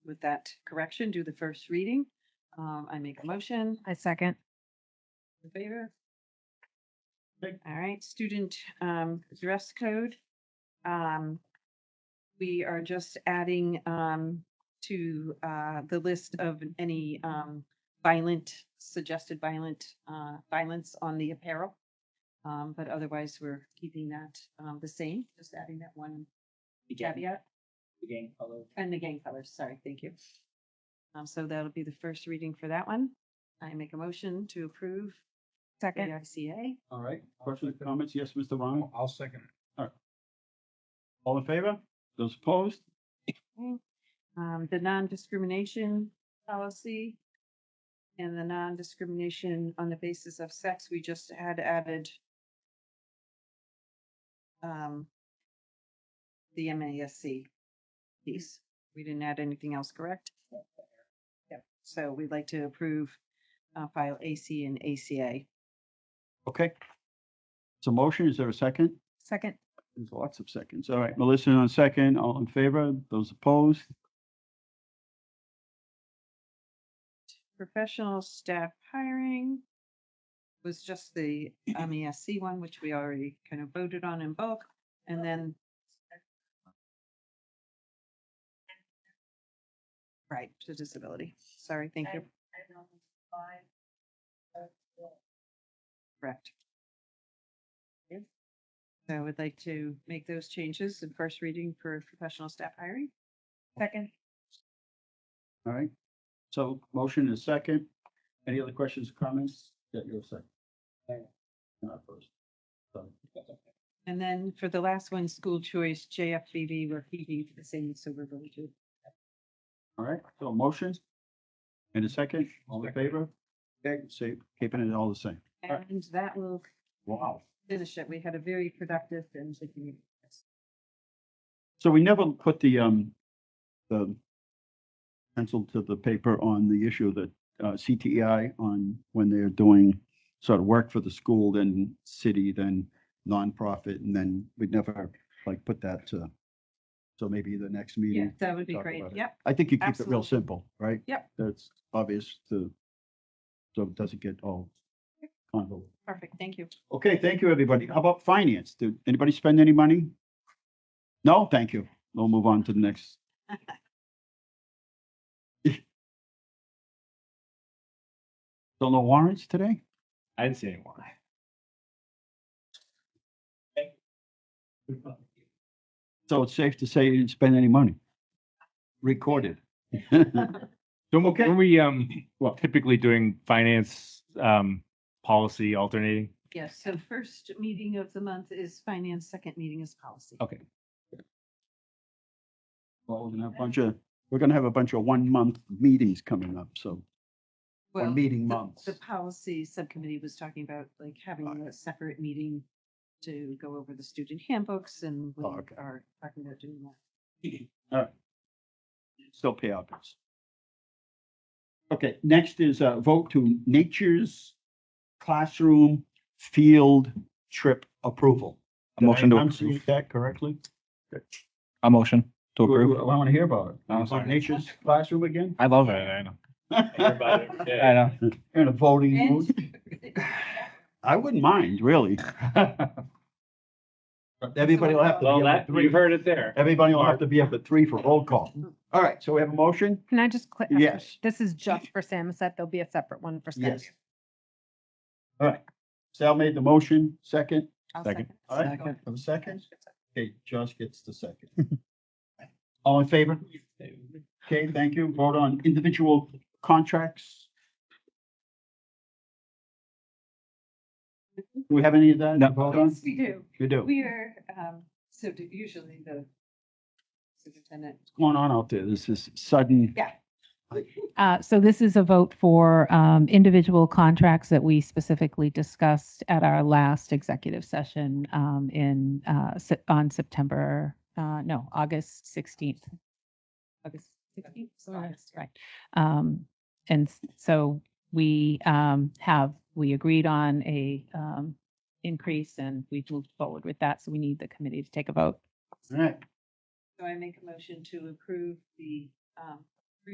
with that correction, do the first reading. Um, I make a motion I second. in favor. Aye. All right, student, um, dress code. Um, we are just adding, um, to, uh, the list of any, um, violent, suggested violent, uh, violence on the apparel. Um, but otherwise, we're keeping that, um, the same, just adding that one The gang- caveat. The gang color. And the gang colors, sorry, thank you. Um, so that'll be the first reading for that one. I make a motion to approve Second. AICA. All right, questions, comments? Yes, Mr. Ryan? I'll second. All in favor? Those opposed? Um, the non-discrimination policy and the non-discrimination on the basis of sex, we just had added um, the MASC piece. We didn't add anything else, correct? Yep. So we'd like to approve uh, file AC and ACA. Okay. It's a motion. Is there a second? Second. There's lots of seconds. All right, Melissa on second, all in favor, those opposed? professional staff hiring was just the um, MESC one, which we already kind of voted on in bulk, and then. Right, to disability. Sorry, thank you. Correct. Okay. So I would like to make those changes in first reading for professional staff hiring. Second. All right. So motion is second. Any other questions, or comments? Yeah, you're second. Aye. Not first. So, That's okay. And then for the last one, school choice, JFBB, we're keeping the same, so we're going to All right, so a motion and a second, all in favor? Okay, so keeping it all the same. Alright. And that will Wow. finish it. We had a very productive and like, you- So we never put the, um, the pencil to the paper on the issue that, uh, CTEI on when they're doing sort of work for the school, then city, then nonprofit, and then we'd never like put that to, so maybe the next yeah, meeting. that would be talk great. about it. Yep. I think you keep it real Absolutely. simple, right? Yep. That's obvious to, so it doesn't get all convoluted. Perfect. Thank you. Okay, thank you, everybody. How about finance? Did anybody spend any money? No, thank you. We'll move on to the next. So no warrants today? I didn't see anyone. So it's safe to say you didn't spend any money. Recorded. So when- Okay. when we, um, well, typically doing finance, um, policy alternating, Yes. So first meeting of the month is finance, second meeting is policy. Oh, okay. Well, we're gonna have a bunch of, we're gonna have a bunch of one-month meetings coming up, so, or Well, meeting the- months. The policy subcommittee was talking about like having a separate meeting to go over the student handbooks and we Oh, okay. are talking about doing that. Still pay our bills. Okay, next is a vote to nature's classroom field trip approval. A motion Did to I enunciate approve. That correctly? A motion to Well, approve. well, I want to hear about it. I'm You sorry. want Nature's classroom again? I love it. I know. I I know. In a voting mood? And- I wouldn't mind, really. Everybody will have to Well, be up that, at three. you've heard it there. Everybody will have to be up at three for roll call. All right, so we have a motion? Can I just click? Yes. This is just for Samoset. There'll be a separate one for Skyview. Yes. All right. Sal made the motion, second. I'll Second. All right, Second. have a second? Okay, Josh gets the second. All in favor? Okay, thank you. Vote on individual contracts. Do we have any of that? No. to vote on? Yes, we Mm-hmm. do. You do. What's We are, um, so do- usually the superintendent going on out there? This is sudden. Uh, So this is a vote for um, individual contracts that we specifically discussed at our last executive session um, in, uh, Sep- on September, uh, no, August 16th. August 16th, August, right. Um, And s- so we um, have, we agreed on a um, increase and we've moved forward with that. So we need the committee to take a vote. All right, So I make a motion to approve the um,